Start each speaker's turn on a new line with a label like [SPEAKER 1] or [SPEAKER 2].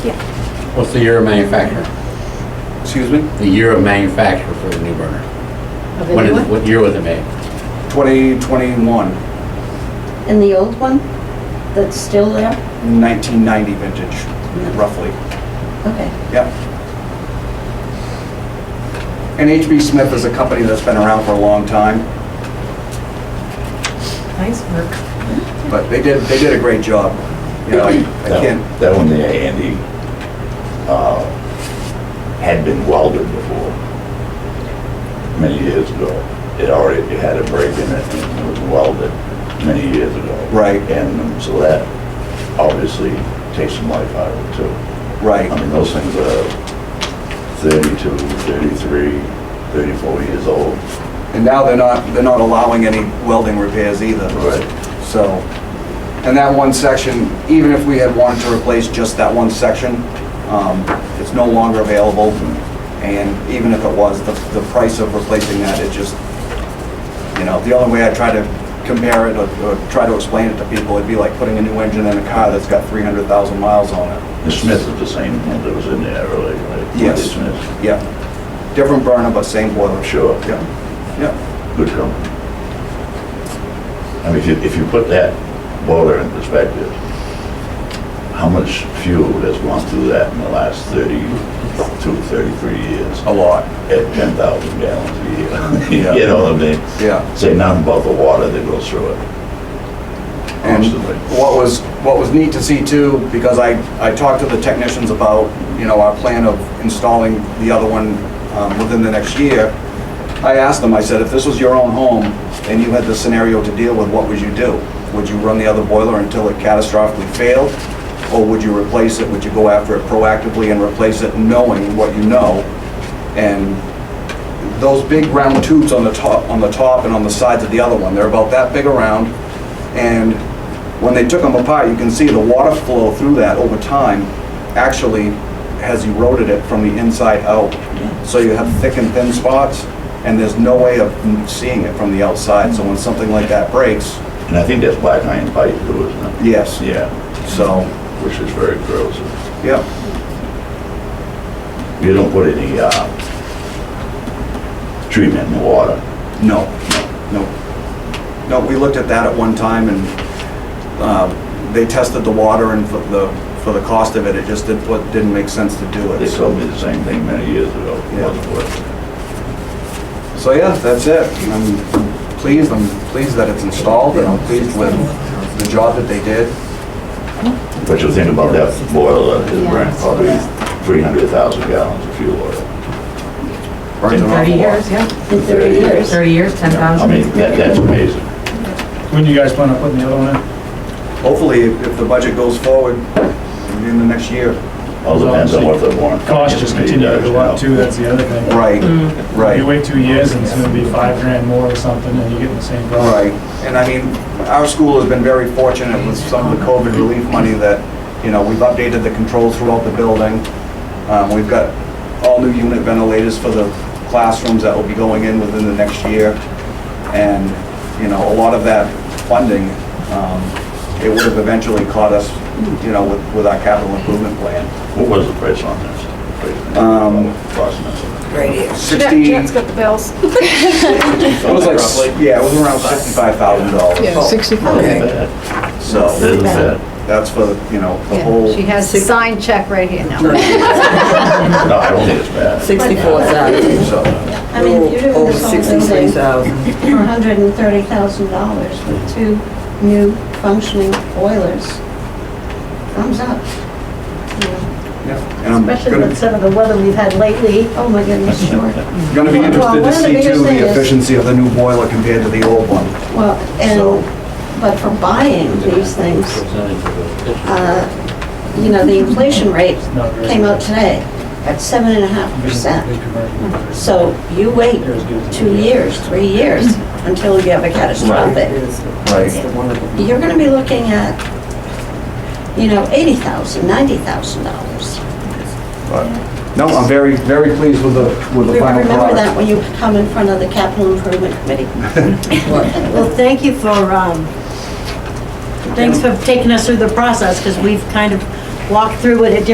[SPEAKER 1] What's the year of manufacture?
[SPEAKER 2] Excuse me?
[SPEAKER 1] The year of manufacture for the new burner?
[SPEAKER 3] Of
[SPEAKER 1] When
[SPEAKER 3] anyone?
[SPEAKER 1] is, what year was it made?
[SPEAKER 2] 2021,
[SPEAKER 3] And the old one that's still there?
[SPEAKER 2] 1990 vintage, roughly.
[SPEAKER 3] Okay.
[SPEAKER 2] Yep. And HB Smith is a company that's been around for a long time,
[SPEAKER 4] Nice work.
[SPEAKER 2] but they did, they did a great job. You know, I I can't,
[SPEAKER 5] That that one there, Andy, uh, had been welded before, many years ago. It already it had a break in it and it was welded many years ago.
[SPEAKER 2] Right.
[SPEAKER 5] And so that obviously takes some life out of it too. I
[SPEAKER 2] right,
[SPEAKER 5] mean, those things are 32, 33, 34 years old.
[SPEAKER 2] and now they're not, they're not allowing any welding repairs either. So, and that one section, even if we had wanted to replace just that one section, um, it's no longer available. And even if it was, the, the price of replacing that, it just, you know, the only way I try to compare it or or try to explain it to people, it'd be like putting a new engine in a car that's got 300,000 miles on it.
[SPEAKER 5] The Smith is the same one that was in there earlier, right?
[SPEAKER 2] Yes.
[SPEAKER 5] Smith,
[SPEAKER 2] Yeah. Different burner, but same boiler.
[SPEAKER 5] sure.
[SPEAKER 2] Yeah, yeah,
[SPEAKER 5] good company. I mean, if you, if you put that boiler in perspective, how much fuel has gone through that in the last 32, 33 years
[SPEAKER 2] a lot,
[SPEAKER 5] at 10,000 gallons a year?
[SPEAKER 2] Oh. Yeah.
[SPEAKER 5] You know what I mean?
[SPEAKER 2] yeah.
[SPEAKER 5] Say nothing about the water that goes through it.
[SPEAKER 2] And
[SPEAKER 5] Absolutely.
[SPEAKER 2] what was, what was neat to see too, because I, I talked to the technicians about, you know, our plan of installing the other one um, within the next year. I asked them, I said, if this was your own home and you had the scenario to deal with, what would you do? Would you run the other boiler until it catastrophically failed? Or would you replace it? Would you go after it proactively and replace it knowing what you know? And those big round tubes on the top, on the top and on the sides of the other one, they're about that big around. And when they took them apart, you can see the water flow through that over time actually has eroded it from the inside out. So you have thick and thin spots, and there's no way of seeing it from the outside. So when something like that breaks,
[SPEAKER 5] And I think that's black iron pipe too, isn't it?
[SPEAKER 2] yes,
[SPEAKER 5] Yeah,
[SPEAKER 2] so,
[SPEAKER 5] which is very corrosive.
[SPEAKER 2] yeah.
[SPEAKER 5] You don't put any, uh, treatment in the water.
[SPEAKER 2] No, no, no. No, we looked at that at one time and uh, they tested the water and for the, for the cost of it, it just didn't, what- didn't make sense to do
[SPEAKER 5] They
[SPEAKER 2] it.
[SPEAKER 5] told me the same thing many years ago.
[SPEAKER 2] Yeah.
[SPEAKER 5] Wasn't working.
[SPEAKER 2] So yeah, that's it. I'm pleased, I'm pleased that it's installed and I'm pleased with the job that they did.
[SPEAKER 5] But you think about that boiler, it burned probably 300,000 gallons of fuel oil.
[SPEAKER 2] Burns an awful
[SPEAKER 4] 30
[SPEAKER 2] lot.
[SPEAKER 4] years, yeah.
[SPEAKER 3] In 30 years.
[SPEAKER 4] 30 years,
[SPEAKER 5] I
[SPEAKER 4] 10,000.
[SPEAKER 5] mean, that, that's amazing.
[SPEAKER 6] When do you guys plan on putting the other one in?
[SPEAKER 2] Hopefully, if if the budget goes forward in the next year.
[SPEAKER 5] All depends on what the warrant.
[SPEAKER 6] Costs just continue to go up too, that's the other thing.
[SPEAKER 2] Right,
[SPEAKER 6] You wait two years and it's gonna be five grand more or something and you're getting the same
[SPEAKER 2] All
[SPEAKER 6] problem.
[SPEAKER 2] Right, and I mean, our school has been very fortunate with some of the COVID relief money that, you know, we've updated the controls throughout the building. Um, We've got all new unit ventilators for the classrooms that will be going in within the next year. And, you know, a lot of that funding, um, it would have eventually caught us, you know, with, with our capital improvement plan.
[SPEAKER 5] What was the price on this?
[SPEAKER 2] Um,
[SPEAKER 5] Cost estimate.
[SPEAKER 3] Right here.
[SPEAKER 2] Sixty. Jack's got the bills. It was like, s- yeah, it was around sixty-five thousand dollars,
[SPEAKER 5] Not
[SPEAKER 7] 65.
[SPEAKER 5] bad.
[SPEAKER 2] so.
[SPEAKER 5] Isn't bad.
[SPEAKER 2] That's for, you know, the whole,
[SPEAKER 7] Yeah, She has a signed check right here now.
[SPEAKER 5] No, I don't think it's bad.
[SPEAKER 7] 64,000.
[SPEAKER 2] so,
[SPEAKER 3] I mean, if you're doing this whole thing for
[SPEAKER 7] thousand.
[SPEAKER 3] $130,000 with two new functioning boilers, thumbs up. you know.
[SPEAKER 2] yeah. And I'm
[SPEAKER 3] Especially with
[SPEAKER 2] gonna,
[SPEAKER 3] some of the weather we've had lately. Oh my goodness, sure.
[SPEAKER 2] gonna be
[SPEAKER 3] Well,
[SPEAKER 2] interested
[SPEAKER 3] one
[SPEAKER 2] to
[SPEAKER 3] of the
[SPEAKER 2] see
[SPEAKER 3] biggest
[SPEAKER 2] too
[SPEAKER 3] thing
[SPEAKER 2] the
[SPEAKER 3] is-
[SPEAKER 2] efficiency of the new boiler compared to the old one.
[SPEAKER 3] Well,
[SPEAKER 2] So-
[SPEAKER 3] and, but for buying these things, uh, you know, the inflation rate
[SPEAKER 6] Not very
[SPEAKER 3] came out
[SPEAKER 6] good.
[SPEAKER 3] today at seven and a half percent. So you wait two years, three years, until you have a catastrophic.
[SPEAKER 2] Right.
[SPEAKER 3] You're gonna be looking at, you know, eighty thousand, ninety thousand dollars.
[SPEAKER 2] But, no, I'm very, very pleased with the, with the final
[SPEAKER 3] Remember that
[SPEAKER 2] product.
[SPEAKER 3] when you come in front of the capital improvement committee.
[SPEAKER 8] Well, thank you for, um, thanks for taking us through the process, because we've kind of walked through it at different